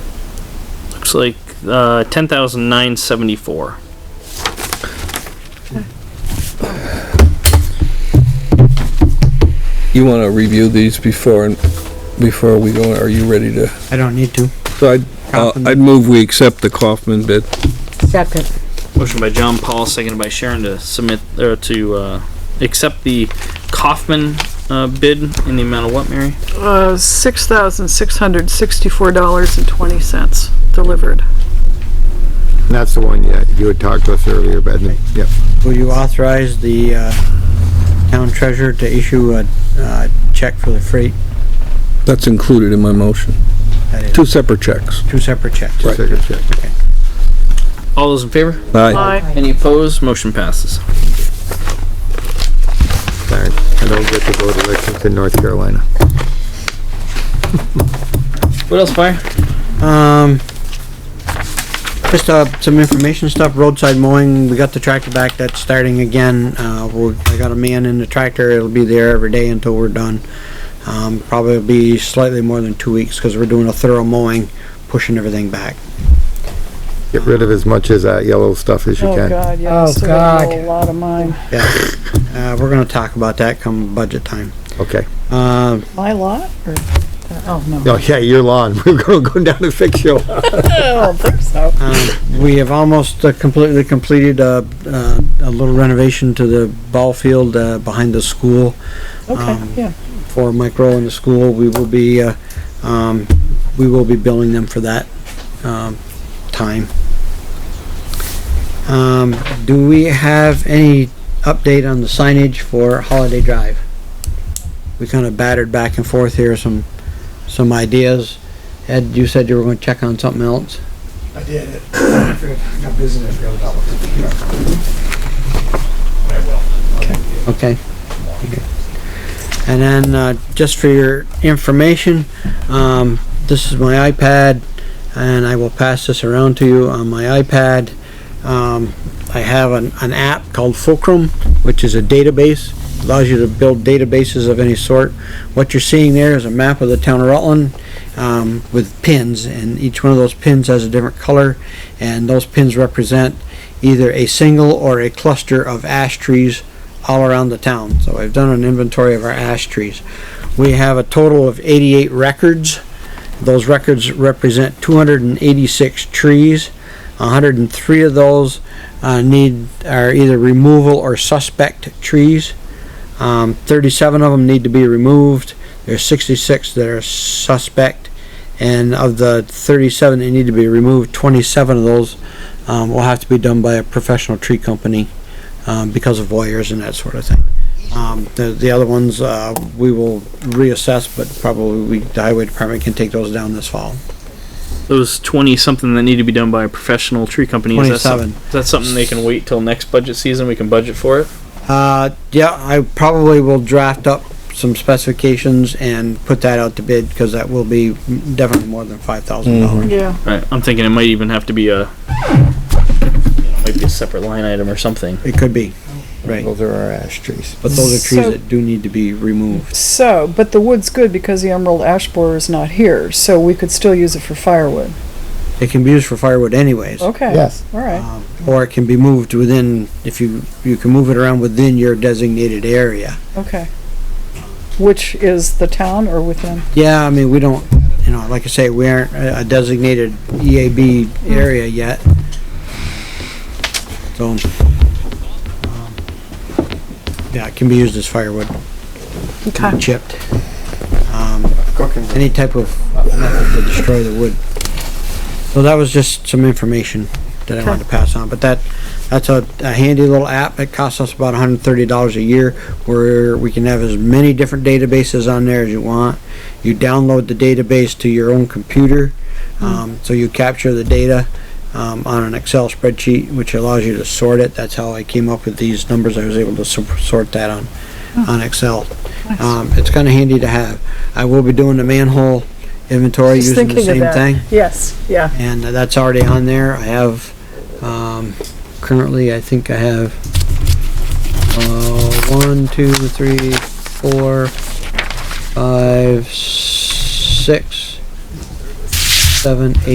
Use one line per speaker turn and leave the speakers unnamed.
looks like, uh, ten thousand nine seventy-four.
You want to review these before, before we go, are you ready to?
I don't need to.
So I'd, uh, I'd move we accept the Kaufman bid.
Second.
Motion by John Paul, seconded by Sharon to submit, or to, uh, accept the Kaufman, uh, bid in the amount of what, Mary?
Uh, six thousand six hundred sixty-four dollars and twenty cents delivered.
That's the one you, you had talked to us earlier about, yep.
Will you authorize the, uh, town treasurer to issue a, uh, check for the freight?
That's included in my motion.
That is
Two separate checks.
two separate checks.
Just take a check.
All those in favor?
Aye.
Aye.
Any opposed? Motion passes.
Darn, I don't get to vote elections in North Carolina.
What else, Fire?
Um, just, uh, some information stuff, roadside mowing, we got the tractor back, that's starting again. Uh, we're, I got a man in the tractor, it'll be there every day until we're done. Um, probably be slightly more than two weeks, cause we're doing a thorough mowing, pushing everything back.
Get rid of as much as that yellow stuff as you
Oh,
can.
God, yeah,
Oh,
so they
God.
know a lot of mine.
Yeah, uh, we're gonna talk about that come budget time.
Okay.
Uh,
My lot, or, uh,
Oh, no.
Oh, yeah, your lawn. We're gonna go down and fix your lawn.
I don't think so.
Um, We have almost uh, completely completed uh, uh, a little renovation to the ball field uh, behind the school
Okay,
Um,
yeah.
for Mike Rowe and the school. We will be, uh, um, we will be billing them for that um, time. Um, Do we have any update on the signage for Holiday Drive? We kind of battered back and forth here, some, some ideas. Ed, you said you were going to check on something else?
I did. it. I forgot- I got busy and I forgot about looking at the computer. But I will. Okay.
Okay. And then, uh, just for your information, um, this is my iPad, and I will pass this around to you on my iPad. Um, I have an, an app called Fulcrum, which is a database, allows you to build databases of any sort. What you're seeing there is a map of the town of Rutland, um, with pins, and each one of those pins has a different color, and those pins represent either a single or a cluster of ash trees all around the town. So I've done an inventory of our ash trees. We have a total of 88 records. Those records represent 286 trees. 103 of those uh, need are either removal or suspect trees. Um, 37 of them need to be removed. There's 66 that are suspect, and of the 37 that need to be removed, 27 of those um, will have to be done by a professional tree company um, because of voyeurs and that sort of thing. Um, the, the other ones, uh, we will reassess, but probably we, the highway department can take those down this fall.
Those twenty-something that need to be done by a professional tree company. is that some-
27.
Is that something they can wait till next budget season? We can budget for it?
Uh, yeah, I probably will draft up some specifications and put that out to bid, because that will be definitely more than five thousand
Mm-hmm.
dollars.
Yeah,
Right, I'm thinking it might even have to be a, you know, maybe a separate line item or something.
It could be, right,
Those are our ash trees.
but those are trees
So-
that do need to be removed.
so, but the wood's good because the emerald ash borer is not here, so we could still use it for firewood.
It can be used for firewood anyways.
Okay.
Yes.
All right,
Um, Or it can be moved within, if you, you can move it around within your designated area.
okay. Which is the town or within?
Yeah, I mean, we don't, you know, like I say, we aren't a a designated EAB area yet. So, um, yeah, it can be used as firewood, can be chipped. Um,
Cooking.
Any type of method to destroy the wood. So that was just some information that I wanted to pass on, but that, that's a a handy little app. It costs us about hundred and thirty dollars a year, where we can have as many different databases on there as you want. You download the database to your own computer,
Hmm.
um, so you capture the data, um, on an Excel spreadsheet, which allows you to sort it. That's how I came up with these numbers. I was able to sor- sort that on,
Hmm.
on Excel. Um, it's kinda handy to have. I will be doing the manhole inventory
Just
using the
thinking of
same
that.
thing
Yes, yeah.
and that's already on there. I have, um, currently, I think I have, uh, one, two, three, four, five, six, seven, eight.